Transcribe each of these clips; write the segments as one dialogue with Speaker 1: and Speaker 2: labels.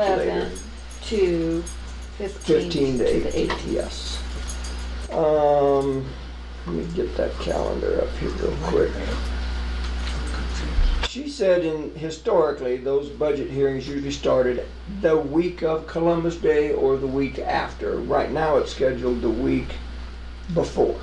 Speaker 1: eleven to fifteen.
Speaker 2: 15 to 18, yes. Um, let me get that calendar up here real quick. She said in, historically, those budget hearings usually started the week of Columbus Day or the week after. Right now, it's scheduled the week before.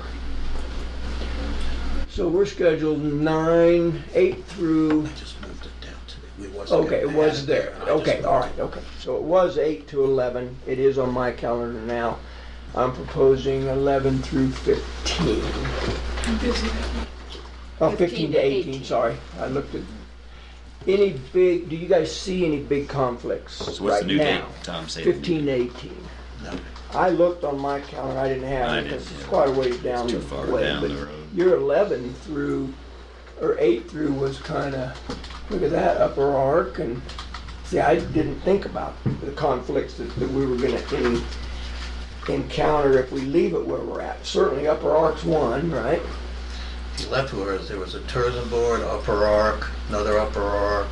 Speaker 2: So we're scheduled nine, eight through,
Speaker 3: Just moved it down to, it wasn't.
Speaker 2: okay, it
Speaker 3: gonna
Speaker 2: was
Speaker 3: add
Speaker 2: there.
Speaker 3: and I just
Speaker 2: Okay,
Speaker 3: moved
Speaker 2: all
Speaker 3: it.
Speaker 2: right, okay. So it was eight to 11. It is on my calendar now. I'm proposing 11 through 15. Oh, 15 to 18, sorry. I looked at, any big, do you guys see any big conflicts
Speaker 4: So what's
Speaker 2: right
Speaker 4: the new date,
Speaker 2: now?
Speaker 4: Tom? Say the new
Speaker 2: 15
Speaker 4: date.
Speaker 2: to 18.
Speaker 3: No.
Speaker 2: I looked on my calendar, I didn't have
Speaker 4: I
Speaker 2: it, because
Speaker 4: didn't,
Speaker 2: it's
Speaker 4: yeah.
Speaker 2: quite a ways down
Speaker 4: It's
Speaker 2: the
Speaker 4: too far
Speaker 2: way,
Speaker 4: down
Speaker 2: but
Speaker 4: the road.
Speaker 2: Your 11 through, or 8 through was kind of, look at that, upper arc, and, see, I didn't think about the conflicts that, that we were gonna en- encounter if we leave it where we're at. Certainly upper arc's one, right?
Speaker 3: If you left where there was a tourism board, upper arc, another upper arc,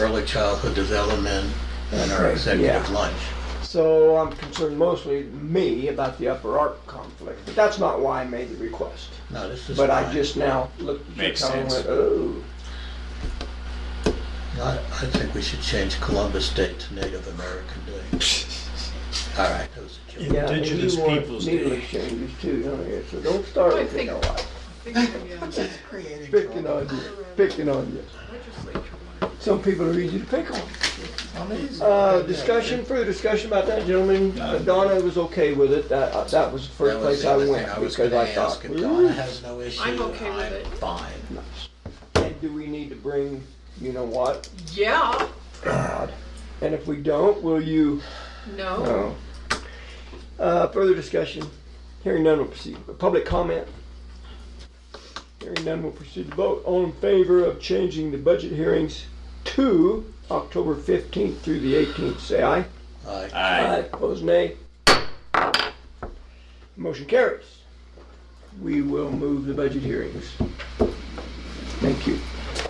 Speaker 3: early childhood development, and our
Speaker 2: Okay,
Speaker 3: executive
Speaker 2: yeah.
Speaker 3: lunch.
Speaker 2: So I'm concerned mostly me about the upper arc conflict, but that's not why I made the request.
Speaker 3: No, this is.
Speaker 2: But I
Speaker 3: fine.
Speaker 2: just now looked at your
Speaker 4: Makes
Speaker 2: calendar and
Speaker 4: sense.
Speaker 2: went, oh.
Speaker 3: I, I think we should change Columbus Day to Native American Day. All right, that was a joke.
Speaker 2: Yeah, and you
Speaker 5: Indigenous
Speaker 2: want
Speaker 5: Peoples
Speaker 2: Needle
Speaker 5: Day.
Speaker 2: changes too, don't you? So don't start
Speaker 6: I
Speaker 2: with
Speaker 6: think-
Speaker 2: picking on us.
Speaker 3: Creating
Speaker 2: Picking
Speaker 3: trouble.
Speaker 2: on you, picking on you. Some people are easy to pick on.
Speaker 3: Amazing.
Speaker 2: Uh, discussion, further discussion about that, gentlemen. Uh, Donna was okay with it. That, uh, that was the
Speaker 3: That
Speaker 2: first
Speaker 3: was
Speaker 2: place
Speaker 3: the
Speaker 2: I
Speaker 3: other
Speaker 2: went
Speaker 3: thing I was
Speaker 2: because
Speaker 3: gonna
Speaker 2: I
Speaker 3: ask,
Speaker 2: thought.
Speaker 3: if Donna has no issue,
Speaker 6: I'm okay with
Speaker 3: I'm
Speaker 6: it.
Speaker 3: fine.
Speaker 2: "Ooh." And do we need to bring, you know what?
Speaker 6: Yeah,
Speaker 2: And if we don't, will you?
Speaker 6: no.
Speaker 2: Oh. Uh, further discussion. Hearing none will proceed. Public comment. Hearing none will proceed to vote. All in favor of changing the budget hearings to October 15th through the 18th, say aye.
Speaker 3: Aye.
Speaker 4: Aye.
Speaker 2: Opposed, nay. Motion carries. We will move the budget hearings. Thank you.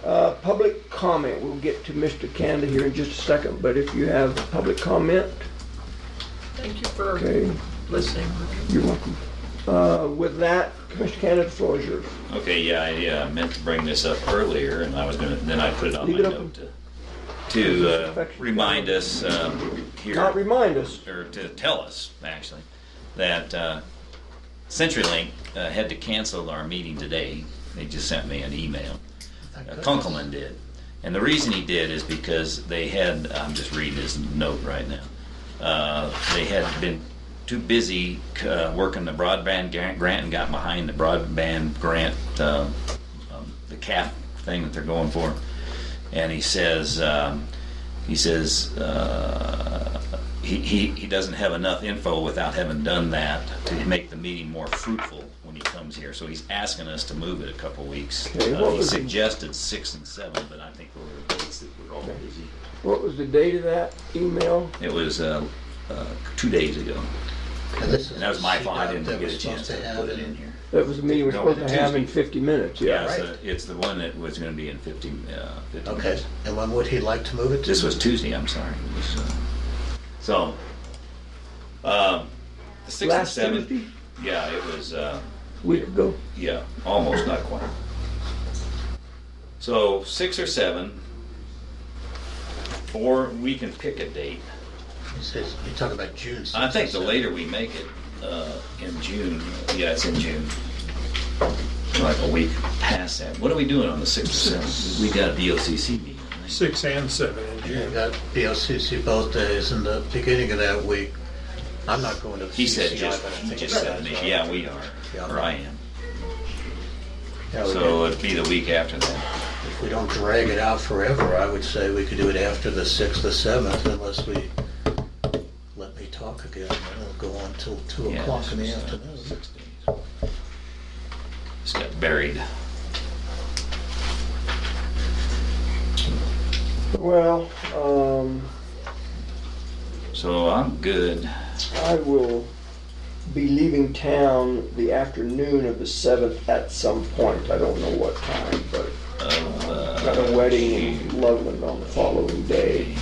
Speaker 2: Uh, Public comment, we'll get to Mr. Canada here in just a second, but if you have public comment,
Speaker 6: Thank you for
Speaker 2: okay,
Speaker 6: listening.
Speaker 2: you're welcome. Uh, With that, Commissioner Canada, the floor is yours.
Speaker 4: Okay, yeah, I uh, meant to bring this up earlier, and I was gonna, then I put it on
Speaker 2: Leave
Speaker 4: my
Speaker 2: it open.
Speaker 4: note to, to uh, remind us um, here.
Speaker 2: Not remind us,
Speaker 4: or to tell us, actually, that uh, CenturyLink uh, had to cancel our meeting today. They just sent me an email.
Speaker 3: Thank
Speaker 4: Uh,
Speaker 3: goodness.
Speaker 4: Kunkelman did. And the reason he did is because they had, I'm just reading his note right now, uh, they had been too busy uh, working the broadband grant grant and got behind the broadband grant, uh, um, the CAF thing that they're going for. And he says, um, he says, uh, he, he, he doesn't have enough info without having done that to make the meeting more fruitful when he comes here. So he's asking us to move it a couple weeks.
Speaker 2: Okay,
Speaker 4: Uh,
Speaker 2: what
Speaker 4: he
Speaker 2: was it?
Speaker 4: suggested six and seven, but I think we're, it's- we're all busy.
Speaker 2: what was the date of that email?
Speaker 4: It was uh, uh, two days ago.
Speaker 3: And this is
Speaker 4: And that was my
Speaker 3: the
Speaker 4: fault. I didn't
Speaker 3: that
Speaker 4: get
Speaker 3: we're
Speaker 4: a chance
Speaker 3: supposed
Speaker 4: to
Speaker 3: have
Speaker 4: put it in here.
Speaker 2: That was the meeting we're
Speaker 4: No,
Speaker 2: supposed to have in
Speaker 4: Tuesday.
Speaker 2: 50 minutes,
Speaker 4: Yeah,
Speaker 2: yeah.
Speaker 4: it's,
Speaker 3: right.
Speaker 4: the- it's the one that was going to be in 15, uh, 15
Speaker 3: Okay, and when would he like to move it to?
Speaker 4: This was Tuesday, I'm sorry. It was, uh, So, um, the sixth and
Speaker 2: Last
Speaker 4: seventh.
Speaker 2: Tuesday,
Speaker 4: Yeah, it was, uh,
Speaker 2: week ago.
Speaker 4: yeah, almost not quite. So six or seven, or we can pick a date.
Speaker 3: He says- You're talking about June.
Speaker 4: I think
Speaker 3: sixth
Speaker 4: the
Speaker 3: or
Speaker 4: later we make it, uh, in June, yeah, it's in June. Like a week past that. What are we doing on the sixth or seventh? We got a DOCC meeting. right?
Speaker 5: Six and seven in
Speaker 3: seventh.
Speaker 5: June.
Speaker 3: We got BOCC both days in the beginning of that week. I'm not going to the
Speaker 4: He said
Speaker 3: CCI,
Speaker 4: just,
Speaker 3: but I
Speaker 4: he
Speaker 3: think
Speaker 4: just
Speaker 3: you
Speaker 4: said,
Speaker 3: guys are.
Speaker 4: yeah, we are,
Speaker 3: Yeah.
Speaker 4: or I am.
Speaker 3: Yeah, we
Speaker 4: So uh, it'd be the week after that.
Speaker 3: can- If we don't drag it out forever, I would say we could do it after the sixth or seventh unless we let me talk again. and It'll go on till two
Speaker 4: Yeah,
Speaker 3: o'clock in the
Speaker 4: so
Speaker 3: afternoon.
Speaker 4: Six days. Just got buried.
Speaker 2: Well, um,
Speaker 4: So I'm good.
Speaker 2: I will be leaving town the afternoon of the seventh at some point. I don't know what time, but
Speaker 4: Of, uh,
Speaker 2: got a wedding in Loveland on the following day.